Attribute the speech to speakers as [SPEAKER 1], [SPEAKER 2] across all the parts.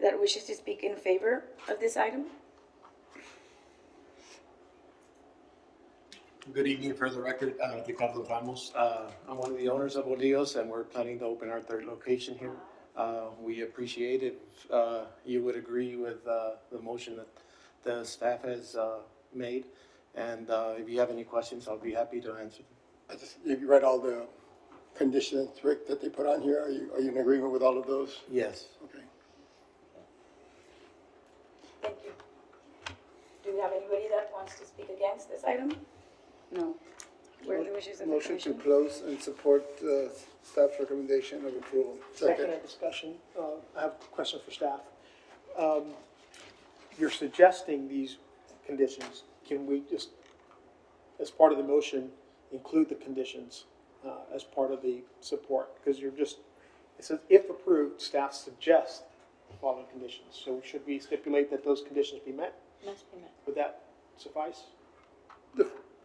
[SPEAKER 1] that wishes to speak in favor of this item?
[SPEAKER 2] Good evening, for the record, uh, Ricardo Ramos. Uh, I'm one of the owners of Odios, and we're planning to open our third location here. Uh, we appreciate if, uh, you would agree with, uh, the motion that the staff has, uh, made. And, uh, if you have any questions, I'll be happy to answer them.
[SPEAKER 3] I just, you read all the conditions, Rick, that they put on here, are you, are you in agreement with all of those?
[SPEAKER 2] Yes.
[SPEAKER 3] Okay.
[SPEAKER 1] Thank you. Do we have anybody that wants to speak against this item? No. Where are the wishes of the
[SPEAKER 4] Motion to
[SPEAKER 1] commission?
[SPEAKER 4] close and support uh, staff recommendation of approval.
[SPEAKER 5] Second on discussion, uh, I have a question for staff. Um, You're suggesting these conditions, can we just, as part of the motion, include the conditions uh, as part of the support? Because you're just, it says if approved, staff suggests the following conditions. So should we stipulate that those conditions be met?
[SPEAKER 6] Must be met.
[SPEAKER 5] Would that suffice?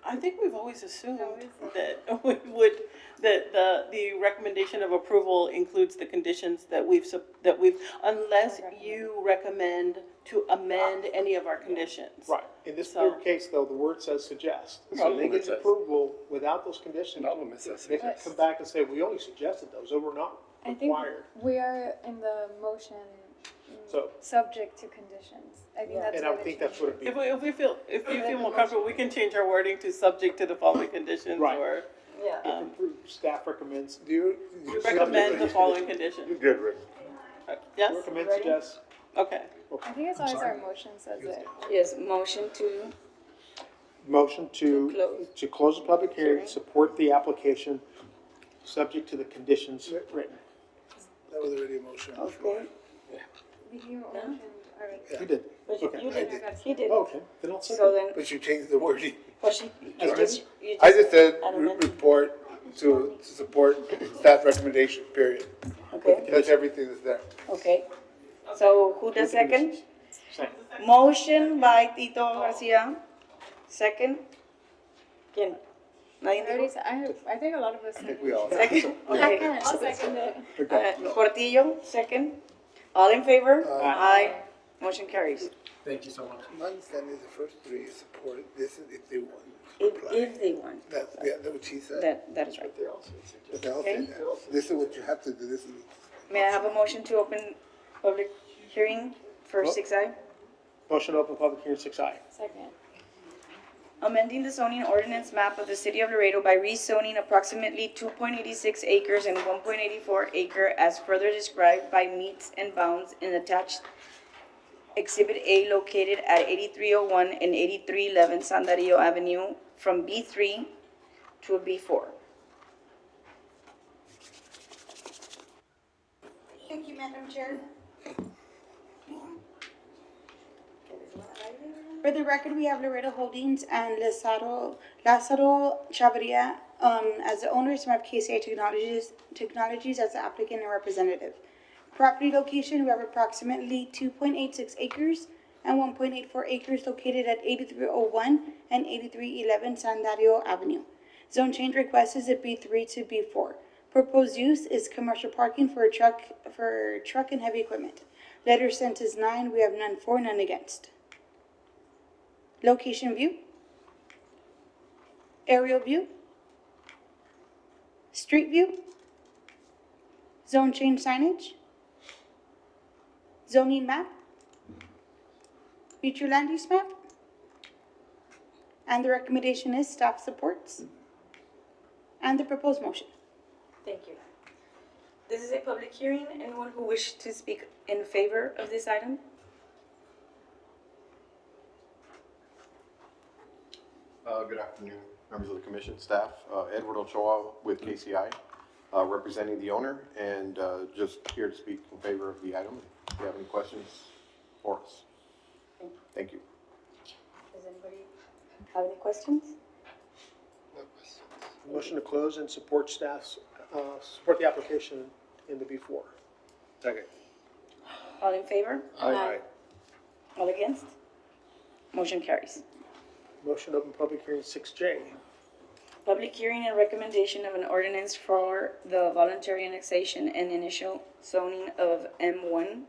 [SPEAKER 6] I think we've always assumed that we would, that the, the recommendation of approval includes the conditions that we've, sup- that we've, unless you recommend to amend any of our conditions.
[SPEAKER 5] Right. In this
[SPEAKER 6] So-
[SPEAKER 5] particular case, though, the word says suggest. So they get approval without those conditions.
[SPEAKER 3] Problem is that
[SPEAKER 5] They could come back and say, we only suggested those, they were not
[SPEAKER 7] I think
[SPEAKER 5] required.
[SPEAKER 7] we are in the motion, mm,
[SPEAKER 5] So-
[SPEAKER 7] subject to conditions. I think that's
[SPEAKER 5] And I
[SPEAKER 7] what it
[SPEAKER 5] think
[SPEAKER 7] should
[SPEAKER 5] that's what it'd be.
[SPEAKER 6] If we, if we feel, if you feel more comfortable, we can change our wording to subject to the following conditions
[SPEAKER 5] Right.
[SPEAKER 6] or
[SPEAKER 1] Yeah.
[SPEAKER 5] If approved, staff recommends,
[SPEAKER 4] Do you?
[SPEAKER 6] recommend the following conditions. Uh,
[SPEAKER 4] Good, Rick.
[SPEAKER 6] Yes?
[SPEAKER 5] recommend, suggests,
[SPEAKER 6] Okay.
[SPEAKER 7] I think as long as our motion says it.
[SPEAKER 1] Yes, motion to,
[SPEAKER 5] motion
[SPEAKER 1] To
[SPEAKER 5] to,
[SPEAKER 1] close.
[SPEAKER 5] to close the public hearing, support the application, subject to the conditions written.
[SPEAKER 4] That was already a motion.
[SPEAKER 7] You motioned already.
[SPEAKER 5] You did,
[SPEAKER 1] but you
[SPEAKER 5] Okay.
[SPEAKER 1] you didn't, he didn't.
[SPEAKER 4] Oh,
[SPEAKER 5] okay, then I'll
[SPEAKER 1] So
[SPEAKER 5] second.
[SPEAKER 1] then,
[SPEAKER 4] But you changed the wording.
[SPEAKER 1] well, she,
[SPEAKER 5] As
[SPEAKER 1] you just. you
[SPEAKER 4] I just said
[SPEAKER 1] I don't
[SPEAKER 4] re-
[SPEAKER 1] know.
[SPEAKER 4] report to to support staff recommendation, period.
[SPEAKER 1] Okay,
[SPEAKER 4] That's everything that's there.
[SPEAKER 1] okay. So who does second?
[SPEAKER 5] Second.
[SPEAKER 1] Motion by Tito Garcia, second. ¿Quién?
[SPEAKER 7] I
[SPEAKER 1] Nadie
[SPEAKER 7] already
[SPEAKER 1] dijo?
[SPEAKER 7] said, I, have- I think a lot of us.
[SPEAKER 4] I think we all.
[SPEAKER 1] Second. Okay.
[SPEAKER 7] I'll second it.
[SPEAKER 1] Uh, Portillo, second. All in favor?
[SPEAKER 5] Aye.
[SPEAKER 1] Motion carries.
[SPEAKER 2] Thank you so much.
[SPEAKER 4] My understanding is the first three is supported, this is if they want. to
[SPEAKER 1] If,
[SPEAKER 4] apply.
[SPEAKER 1] if they want,
[SPEAKER 4] That's, yeah, that's what she said.
[SPEAKER 1] that, that is right.
[SPEAKER 4] But they all said that. This is what you have to do, this is.
[SPEAKER 1] May I have a motion to open public hearing for six I?
[SPEAKER 5] Motion to open public hearing, six I.
[SPEAKER 7] Second.
[SPEAKER 1] Amending the zoning ordinance map of the city of Laredo by rezoning approximately two point eighty-six acres and one point eighty-four acre as further described by meets and bounds in attached Exhibit A located at eighty-three oh one and eighty-three eleven San Dario Avenue from B three to B four.
[SPEAKER 8] Thank you, Madam Chair. For the record, we have Laredo Holdings and Lazaro, Lazaro Chavarria, um, as the owners, and we have KCI Technologies, Technologies as the applicant and representative. Property location, we have approximately two point eight six acres and one point eight four acres located at eighty-three oh one and eighty-three eleven San Dario Avenue. Zone change request is a B three to B four. Proposed use is commercial parking for a truck, for truck and heavy equipment. Letter sent is nine, we have none for, none against. Location view. Aerial view. Street view. Zone change signage. Zoning map. Future land use map. And the recommendation is staff supports. And the proposed motion.
[SPEAKER 1] Thank you. This is a public hearing. Anyone who wishes to speak in favor of this item?
[SPEAKER 9] Uh, Good afternoon, members of the commission, staff. Uh, Edward Ochoa with KCI, uh, representing the owner, and uh, just here to speak in favor of the item. If you have any questions for us. Thank you.
[SPEAKER 1] Does anybody have any questions?
[SPEAKER 5] Motion to close and support staff's, uh, support the application in the B four.
[SPEAKER 4] Second.
[SPEAKER 1] All in favor?
[SPEAKER 4] Aye.
[SPEAKER 1] All against? Motion carries.
[SPEAKER 5] Motion to open public hearing, six J.
[SPEAKER 1] Public hearing and recommendation of an ordinance for the voluntary annexation and initial zoning of M1